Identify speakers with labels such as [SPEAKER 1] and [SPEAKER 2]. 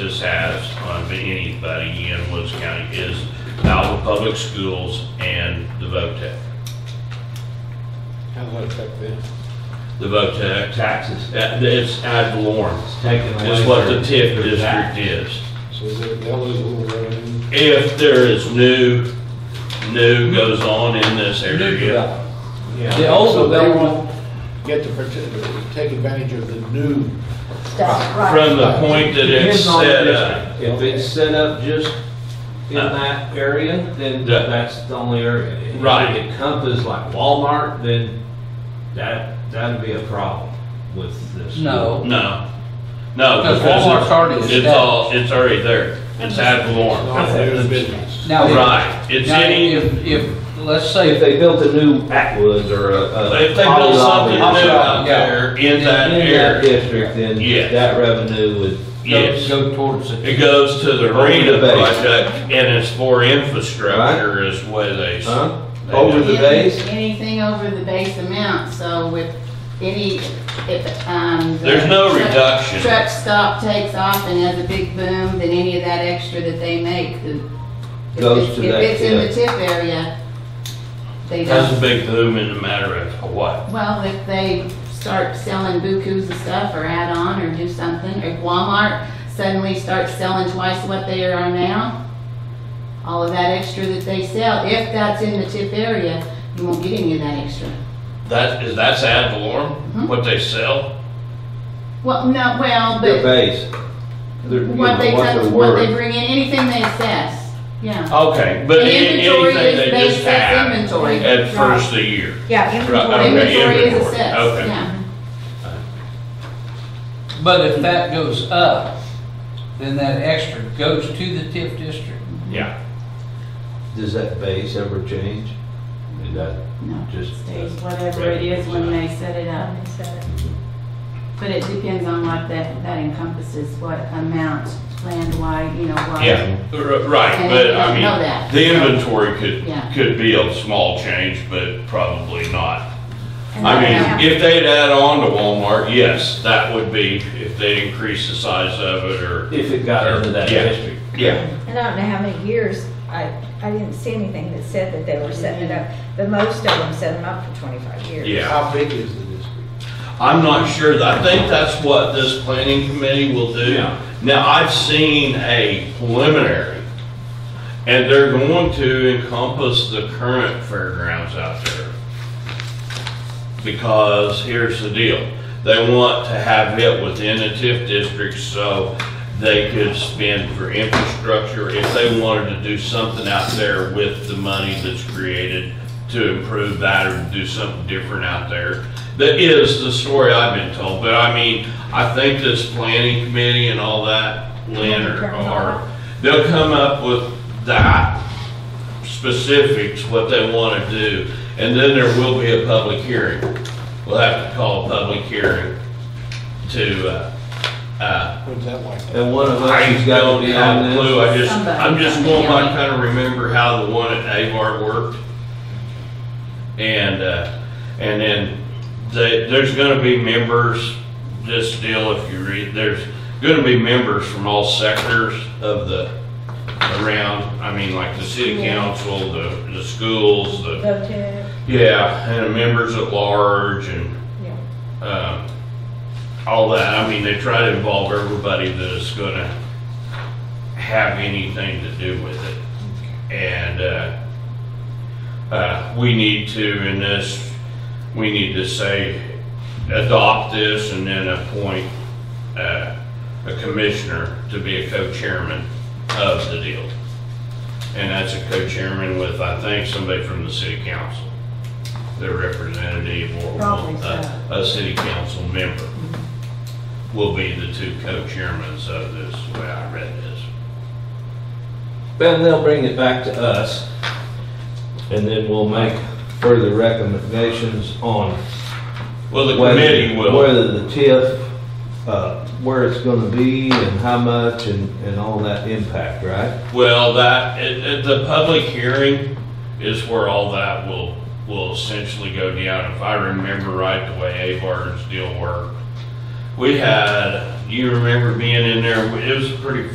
[SPEAKER 1] has on anybody in Woods County is Alva Public Schools and the VOTEC.
[SPEAKER 2] How does that affect them?
[SPEAKER 1] The VOTEC taxes, uh, it's ad valorem.
[SPEAKER 3] taken away.
[SPEAKER 1] It's what the
[SPEAKER 3] their-
[SPEAKER 1] TIF
[SPEAKER 3] their
[SPEAKER 1] district
[SPEAKER 3] tax.
[SPEAKER 1] is.
[SPEAKER 2] So they'll they'll lose a little revenue.
[SPEAKER 1] If there is new, new goes on in this area,
[SPEAKER 3] Yeah. The
[SPEAKER 2] Yeah.
[SPEAKER 3] old
[SPEAKER 2] So they
[SPEAKER 3] development,
[SPEAKER 2] won't get to partic- take advantage of the new,
[SPEAKER 4] That's right.
[SPEAKER 1] from the point that it's
[SPEAKER 3] depends on the
[SPEAKER 1] set up.
[SPEAKER 3] district. If it's set up just in
[SPEAKER 1] Uh,
[SPEAKER 3] that area, then
[SPEAKER 1] the-
[SPEAKER 3] that's the only area. If
[SPEAKER 1] Right.
[SPEAKER 3] It encompasses like Walmart, then that, that'd be a problem with this.
[SPEAKER 5] No.
[SPEAKER 1] No, no.
[SPEAKER 5] Because Walmart's already
[SPEAKER 1] It's all, it's already there. It's ad valorem.
[SPEAKER 2] not new business.
[SPEAKER 5] Now, if-
[SPEAKER 1] Right, it's
[SPEAKER 5] now,
[SPEAKER 1] any, if
[SPEAKER 5] if, if, let's say,
[SPEAKER 3] If
[SPEAKER 5] that-
[SPEAKER 3] they built a new Atwoods or a. a-
[SPEAKER 1] they build something new out
[SPEAKER 5] Yeah.
[SPEAKER 1] there in that
[SPEAKER 3] In that
[SPEAKER 1] area,
[SPEAKER 3] district, then
[SPEAKER 1] Yes.
[SPEAKER 3] that revenue would,
[SPEAKER 5] go,
[SPEAKER 1] yes.
[SPEAKER 5] go towards it.
[SPEAKER 1] It goes to the arena
[SPEAKER 3] Over the base.
[SPEAKER 1] project and it's for infrastructure is where they, s-
[SPEAKER 3] huh? Over the base?
[SPEAKER 6] Anything over the base amount, so with any, if, um. the
[SPEAKER 1] there's no
[SPEAKER 6] truck-
[SPEAKER 1] reduction.
[SPEAKER 6] Truck stop takes off and has a big boom, then any of that extra that they make, the. if
[SPEAKER 3] Goes
[SPEAKER 6] it-
[SPEAKER 3] to that
[SPEAKER 6] If it's in the tip area, they
[SPEAKER 1] That's a
[SPEAKER 6] don't,
[SPEAKER 1] big boom in a matter of what?
[SPEAKER 6] well, if they start selling bukus of stuff or add on or do something, if Walmart suddenly starts selling twice what they are now, all of that extra that they sell, if that's in the tip area, you won't get any of that extra.
[SPEAKER 1] That, is that's ad valorem,
[SPEAKER 6] Mhm.
[SPEAKER 1] what they sell?
[SPEAKER 6] Well, no, well,
[SPEAKER 3] The
[SPEAKER 6] but
[SPEAKER 3] base. They're- you
[SPEAKER 6] what
[SPEAKER 3] know,
[SPEAKER 6] they,
[SPEAKER 3] they're
[SPEAKER 6] touch- what they
[SPEAKER 3] worth.
[SPEAKER 6] bring in, anything they assess, yeah.
[SPEAKER 1] Okay, but
[SPEAKER 6] And
[SPEAKER 1] a-
[SPEAKER 6] inventory
[SPEAKER 1] anything
[SPEAKER 6] is
[SPEAKER 1] they
[SPEAKER 6] based
[SPEAKER 1] just
[SPEAKER 6] on
[SPEAKER 1] have
[SPEAKER 6] inventory,
[SPEAKER 1] at
[SPEAKER 6] right.
[SPEAKER 1] first of the year.
[SPEAKER 4] Yeah,
[SPEAKER 1] Right, okay.
[SPEAKER 4] inventory.
[SPEAKER 6] Oh, Inventory is
[SPEAKER 1] inventory, okay.
[SPEAKER 6] assessed, yeah.
[SPEAKER 5] But if that goes up, then that extra goes to the TIF district.
[SPEAKER 1] Yeah.
[SPEAKER 3] Does that base ever change? Is that
[SPEAKER 6] No,
[SPEAKER 3] just?
[SPEAKER 6] stays whatever it is when they set it up. But it depends on what that, that encompasses, what amount, land wide, you know, wide.
[SPEAKER 1] Yeah, r- right,
[SPEAKER 6] And
[SPEAKER 1] but
[SPEAKER 6] you
[SPEAKER 1] I
[SPEAKER 6] don't know that.
[SPEAKER 1] mean, the inventory could,
[SPEAKER 6] Yeah.
[SPEAKER 1] could be a small change, but probably not.
[SPEAKER 4] And
[SPEAKER 1] I
[SPEAKER 4] then-
[SPEAKER 1] mean, if they'd add on to Walmart, yes, that would be, if they increase the size of it or,
[SPEAKER 3] If it got into that
[SPEAKER 1] Yeah.
[SPEAKER 3] district?
[SPEAKER 1] yeah.
[SPEAKER 4] And I don't know how many years, I, I didn't see anything that said that they were setting it up. The most of them set them up for 25 years.
[SPEAKER 1] Yeah.
[SPEAKER 2] How big is the district?
[SPEAKER 1] I'm not sure, I think that's what this planning committee will do.
[SPEAKER 3] Yeah.
[SPEAKER 1] Now, I've seen a preliminary, and they're going to encompass the current fairgrounds out there. Because here's the deal, they want to have it within the TIF district so they could spend for infrastructure if they wanted to do something out there with the money that's created to improve that or do something different out there. That is the story I've been told, but I mean, I think this planning committee and all that, Lynn, are- are, they'll come up with that specifics, what they want to do, and then there will be a public hearing. We'll have to call a public hearing to, uh, uh,
[SPEAKER 2] What's that like?
[SPEAKER 3] And one of us
[SPEAKER 1] I
[SPEAKER 3] has got
[SPEAKER 1] don't
[SPEAKER 3] to be on
[SPEAKER 1] have a
[SPEAKER 3] this?
[SPEAKER 1] clue, I just,
[SPEAKER 6] Somebody.
[SPEAKER 1] I'm just going by kind of remember how the one at Avar worked. And, uh, and then they, there's gonna be members, this deal, if you read, there's gonna be members from all sectors of the, around, I mean, like the city
[SPEAKER 4] Yeah.
[SPEAKER 1] council, the, the schools, the,
[SPEAKER 4] Go to,
[SPEAKER 1] yeah, and members at large and,
[SPEAKER 4] yeah.
[SPEAKER 1] um, all that. I mean, they try to involve everybody that is gonna have anything to do with it. And, uh, uh, we need to in this, we need to say, adopt this and then appoint, uh, a commissioner to be a co-chairman of the deal. And that's a co-chairman with, I think, somebody from the city council, their representative or
[SPEAKER 4] Probably
[SPEAKER 1] a, a city council member will be the two co-chairmans of this, the way I read this.
[SPEAKER 3] Then they'll bring it back to us, and then we'll make further recommendations on
[SPEAKER 1] Well, the
[SPEAKER 3] whether-
[SPEAKER 1] committee will,
[SPEAKER 3] Whether the TIF, uh, where it's gonna be and how much and, and all that impact, right?
[SPEAKER 1] well, that, it, it, the public hearing is where all that will, will essentially go down. If I remember right, the way Avar's deal worked, we had, you remember being in there, it was a pretty